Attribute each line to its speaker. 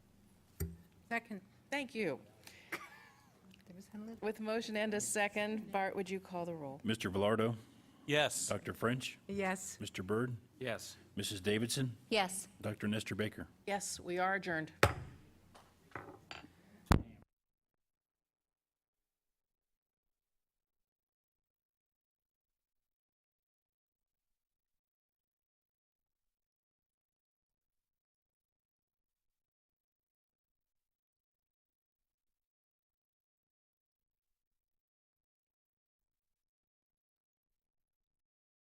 Speaker 1: Second.
Speaker 2: Thank you. With motion and a second, Bart, would you call the roll?
Speaker 3: Mr. Velardo,
Speaker 4: Yes.
Speaker 3: Dr. French,
Speaker 1: Yes.
Speaker 3: Mr. Byrd,
Speaker 4: Yes.
Speaker 3: Mrs. Davidson,
Speaker 5: Yes.
Speaker 3: Dr. Nestor Baker.
Speaker 2: Yes, we are adjourned.